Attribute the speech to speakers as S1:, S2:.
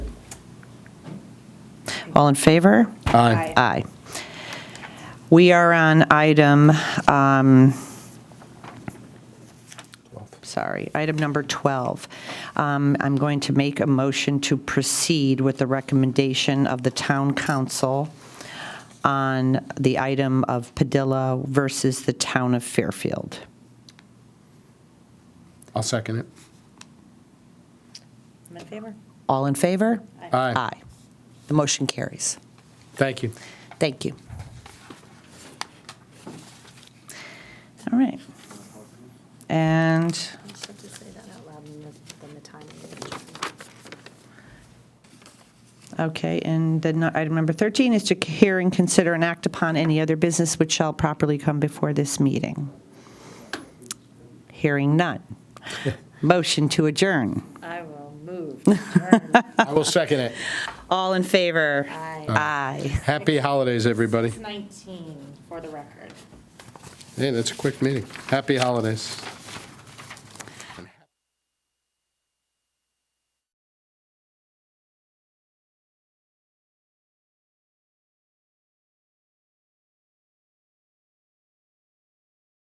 S1: All in favor?
S2: Aye.
S1: Aye. We are on item, um, sorry, item number 12. Um, I'm going to make a motion to proceed with the recommendation of the town council on the item of Padilla versus the town of Fairfield.
S2: I'll second it.
S3: I'm in favor.
S1: All in favor?
S2: Aye.
S1: Aye. The motion carries.
S2: Thank you.
S1: Thank you. All right. And
S3: You should just say that out loud and then the timing.
S1: Okay, and then item number 13 is to hear and consider and act upon any other business which shall properly come before this meeting. Hearing none. Motion to adjourn.
S3: I will move.
S2: I will second it.
S1: All in favor?
S3: Aye.
S1: Aye.
S2: Happy holidays, everybody.
S3: 19, for the record.
S2: Hey, that's a quick meeting. Happy holidays.